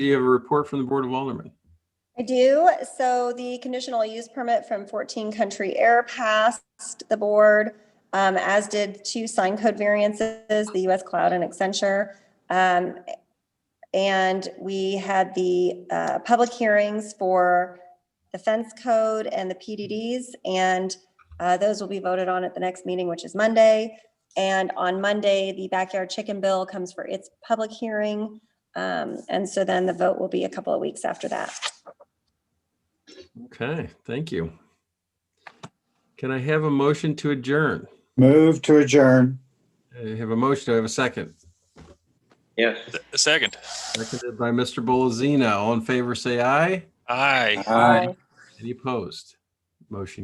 Do you have a report from the Board of Aldermen? I do. So the conditional use permit from 14 Country Air passed the board, um, as did two sign code variances, the US Cloud and Accenture. Um, And we had the uh, public hearings for the fence code and the PDDs, and uh, those will be voted on at the next meeting, which is Monday. And on Monday, the backyard chicken bill comes for its public hearing. Um, And so then the vote will be a couple of weeks after that. Okay, thank you. Can I have a motion to adjourn? Move to adjourn. I have a motion. Do I have a second? Yes. A second. Seconded by Mr. Bolzino. All in favor, say aye. Aye. Aye. Any opposed? Motion